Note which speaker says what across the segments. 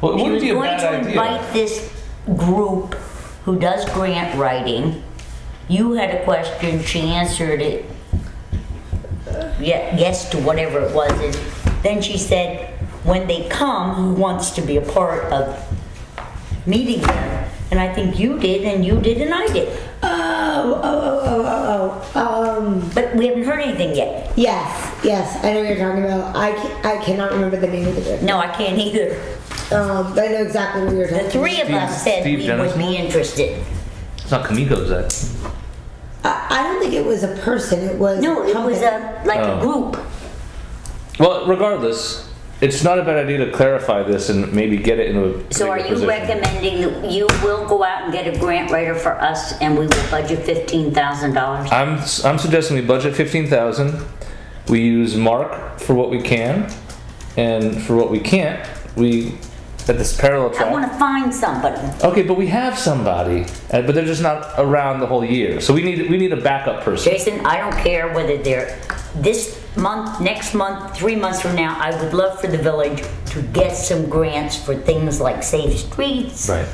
Speaker 1: Well, it
Speaker 2: She
Speaker 1: wouldn't
Speaker 2: was
Speaker 1: be a
Speaker 2: going
Speaker 1: bad
Speaker 2: to
Speaker 1: idea.
Speaker 2: Invite this group who does grant writing. You had a question, she answered it. Yeah, yes to whatever it was, and then she said, when they come, who wants to be a part of meeting them? And I think you did, and you did, and I did,
Speaker 3: Oh, oh, oh, oh, oh, oh. Um,
Speaker 2: but we haven't heard anything yet.
Speaker 3: yes, yes, I know what you're talking about. I, ca- I cannot remember the name of the group.
Speaker 2: No, I can't either.
Speaker 3: Um, but I know exactly what you're
Speaker 2: The
Speaker 3: talking
Speaker 2: three of us
Speaker 1: Steve-
Speaker 2: said
Speaker 1: Steve
Speaker 2: we would
Speaker 1: Dennismore?
Speaker 2: be interested.
Speaker 1: It's not Kamiko's that.
Speaker 3: about. I, I don't think it was a person, it was.
Speaker 2: No, it was
Speaker 3: company.
Speaker 2: a, like a
Speaker 1: Oh.
Speaker 2: group.
Speaker 1: Well, regardless, it's not a bad idea to clarify this and maybe get it into a.
Speaker 2: So are
Speaker 1: bigger
Speaker 2: you
Speaker 1: position.
Speaker 2: recommending that you will go out and get a grant writer for us and we will budget fifteen thousand dollars?
Speaker 1: I'm I'm suggesting we budget fifteen thousand. We use Mark for what we can, and for what we can't, we at this parallel
Speaker 2: I
Speaker 1: track.
Speaker 2: wanna find somebody.
Speaker 1: okay, but we have somebody, uh, but they're just not around the whole year. So we need we need a backup person.
Speaker 2: Jason, I don't care whether they're this month, next month, three months from now, I would love for the village to get some grants for things like safe streets.
Speaker 1: Right.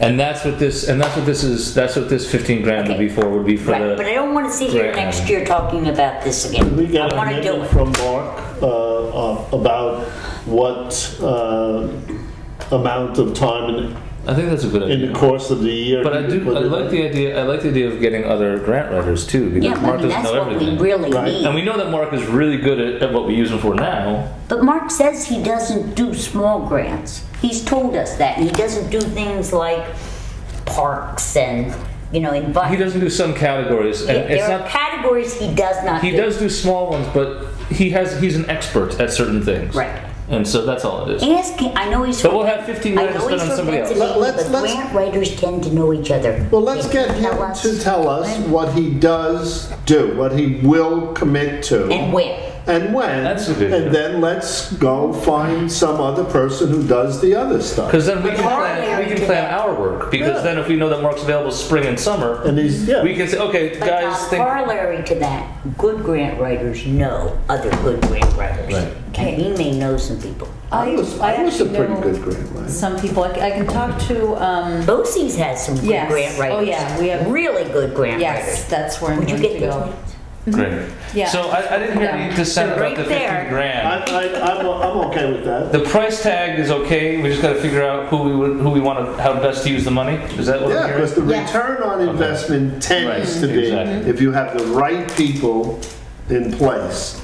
Speaker 1: And that's what this and that's what this is. That's what this fifteen grand would be for. Would be for
Speaker 2: Right,
Speaker 1: the.
Speaker 2: but I don't wanna sit here
Speaker 1: Grant.
Speaker 2: next year talking about this again.
Speaker 4: We got
Speaker 2: I
Speaker 4: a
Speaker 2: wanna do
Speaker 4: memo
Speaker 2: it.
Speaker 4: from Mark uh, uh, about what uh, amount of time in-
Speaker 1: I think that's a good idea.
Speaker 4: in the course of the year.
Speaker 1: But I
Speaker 4: you
Speaker 1: do.
Speaker 4: put
Speaker 1: I
Speaker 4: it
Speaker 1: like
Speaker 4: in.
Speaker 1: the idea. I like the idea of getting other grant writers too, because
Speaker 2: Yeah, but I
Speaker 1: Mark
Speaker 2: mean,
Speaker 1: doesn't
Speaker 2: that's
Speaker 1: know
Speaker 2: what we
Speaker 1: everything.
Speaker 2: really
Speaker 4: Right.
Speaker 2: need.
Speaker 1: and we know that Mark is really good at, at what we use him for now.
Speaker 2: But Mark says he doesn't do small grants. He's told us that, and he doesn't do things like parks and, you know,
Speaker 1: He
Speaker 2: environment.
Speaker 1: doesn't do some categories, and it's
Speaker 2: There are
Speaker 1: not.
Speaker 2: categories he does not do.
Speaker 1: He does do small ones, but he has. He's an expert at certain things.
Speaker 2: Right.
Speaker 1: And so that's all it is.
Speaker 2: Ask him, I know he's.
Speaker 1: But we'll have 15
Speaker 2: I
Speaker 1: minutes
Speaker 2: know
Speaker 1: to spend
Speaker 2: he's
Speaker 1: on
Speaker 2: from
Speaker 1: somebody else.
Speaker 2: Pennsylvania,
Speaker 5: Let- let's-
Speaker 2: but
Speaker 5: let's-
Speaker 2: Grant writers tend to know each other.
Speaker 5: Well, let's
Speaker 2: They
Speaker 5: get
Speaker 2: can
Speaker 5: him
Speaker 2: tell us
Speaker 5: to tell us what he does do, what he will commit to.
Speaker 2: And when.
Speaker 5: And when.
Speaker 1: That's a good idea.
Speaker 5: And then let's go find some other person who does the other stuff.
Speaker 1: Because then we can plan. We can plan our work. Because
Speaker 5: Yeah.
Speaker 1: then if we know that Mark's available spring and summer,
Speaker 5: And he's, yeah.
Speaker 1: we can say, okay,
Speaker 2: But
Speaker 1: guys,
Speaker 2: now,
Speaker 1: think.
Speaker 2: corollary to that, good grant writers know other good grant writers.
Speaker 1: Right.
Speaker 2: And he may know some people.
Speaker 5: I was, I was a
Speaker 6: actually
Speaker 5: pretty
Speaker 6: know
Speaker 5: good grant writer.
Speaker 6: Some people, I c- I can talk to, um,
Speaker 2: BOCES has some good
Speaker 6: Yes.
Speaker 2: grant
Speaker 6: Oh,
Speaker 2: writers.
Speaker 6: yeah, we have-
Speaker 2: Really good grant writers.
Speaker 6: yes, that's where I'm
Speaker 2: Would you
Speaker 6: going
Speaker 2: get
Speaker 6: to
Speaker 2: those?
Speaker 6: go.
Speaker 1: Great.
Speaker 6: Yeah.
Speaker 1: So I, I didn't hear any dissent
Speaker 2: So
Speaker 1: about
Speaker 2: right
Speaker 1: the 15
Speaker 2: there-
Speaker 1: grand.
Speaker 4: I, I, I'm, I'm okay with that.
Speaker 1: The price tag is okay. We just got to figure out who we would, who we want to how best to use the money. Is that what
Speaker 5: Yeah,
Speaker 1: I'm
Speaker 5: because
Speaker 1: hearing?
Speaker 5: the
Speaker 3: Yeah.
Speaker 5: return on investment tends
Speaker 1: Right,
Speaker 5: to be,
Speaker 1: exactly.
Speaker 5: if you have the right people in place,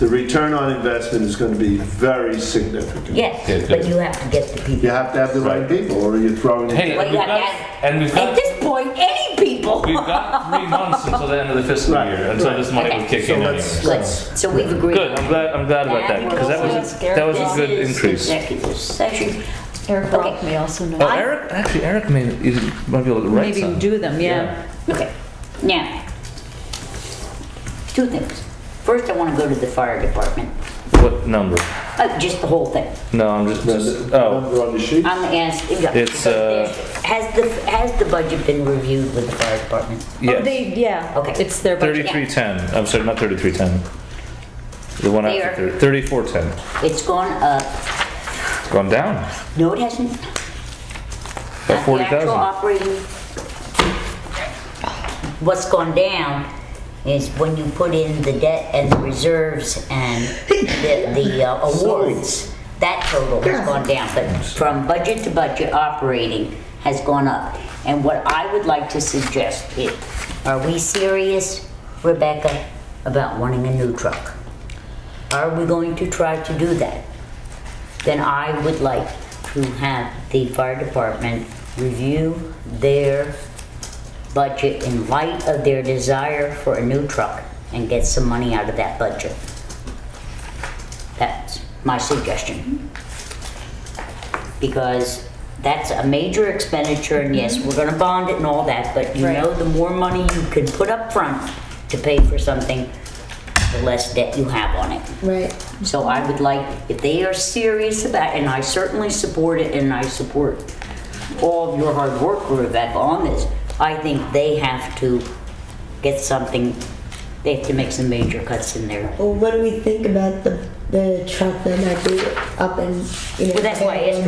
Speaker 5: the return on investment is going to be very significant.
Speaker 1: Yeah,
Speaker 2: Yes, but
Speaker 1: good.
Speaker 2: you have to get the people.
Speaker 5: You have to have the right people, or you're throwing. it
Speaker 1: Hey,
Speaker 2: Well,
Speaker 1: we've
Speaker 2: yeah,
Speaker 1: got,
Speaker 2: yeah.
Speaker 1: and we've
Speaker 2: At
Speaker 1: got
Speaker 2: this point, any people.
Speaker 1: we've got three months until the end of the fiscal
Speaker 5: Right,
Speaker 1: year until this money
Speaker 2: Okay.
Speaker 1: would kick
Speaker 5: So
Speaker 1: in.
Speaker 5: let's-
Speaker 1: anyway.
Speaker 2: Good. So we've agreed.
Speaker 1: Good. I'm glad. I'm glad about that because that was a, that was a good
Speaker 2: This is
Speaker 1: increase.
Speaker 2: Executive session.
Speaker 6: Eric
Speaker 2: Okay.
Speaker 6: Brock may also
Speaker 1: Oh,
Speaker 6: know.
Speaker 1: Eric, actually, Eric may, is, might be able to write
Speaker 6: Maybe
Speaker 1: some.
Speaker 6: do them, yeah.
Speaker 2: Okay, now, two things. First, I want to go to the fire department,
Speaker 1: What number?
Speaker 2: Uh, just the whole thing.
Speaker 1: No, I'm just,
Speaker 5: The
Speaker 1: just oh.
Speaker 5: number on the sheet.
Speaker 2: I'm asking, yeah.
Speaker 1: It's, uh,
Speaker 2: because there's- Has the, has the budget been reviewed with the fire department?
Speaker 1: Yes.
Speaker 6: Oh, they, yeah.
Speaker 2: Okay.
Speaker 6: It's their budget.
Speaker 1: 3310. I'm sorry, not 3310. The one
Speaker 2: They
Speaker 1: after
Speaker 2: are-
Speaker 1: 30, 3410.
Speaker 2: It's gone up,
Speaker 1: It's gone down
Speaker 2: no, it hasn't. The
Speaker 1: by
Speaker 2: actual
Speaker 1: 40,000.
Speaker 2: operating, what's gone down is when you put in the debt and the reserves and the, the uh, awards, that total has gone down, but from budget to budget, operating has gone up. And what I would like to suggest is, are we serious, Rebecca, about wanting a new truck? Are we going to try to do that? then I would like to have the fire department review their budget in light of their desire for a new truck and get some money out of that budget. That's my suggestion. Because that's a major expenditure and yes, we're gonna bond it and all that, but you
Speaker 6: Right.
Speaker 2: know, the more money you can put up front to pay for something, the less debt you have on it.
Speaker 3: Right.
Speaker 2: So I would like, if they are serious about, and I certainly support it, and I support all of your hard work, Rebecca, on this, I think they have to get something, they have to make some major cuts in there.
Speaker 3: Well, what do we think about the, the truck that might be up and, you know.
Speaker 2: Well, that's why I asked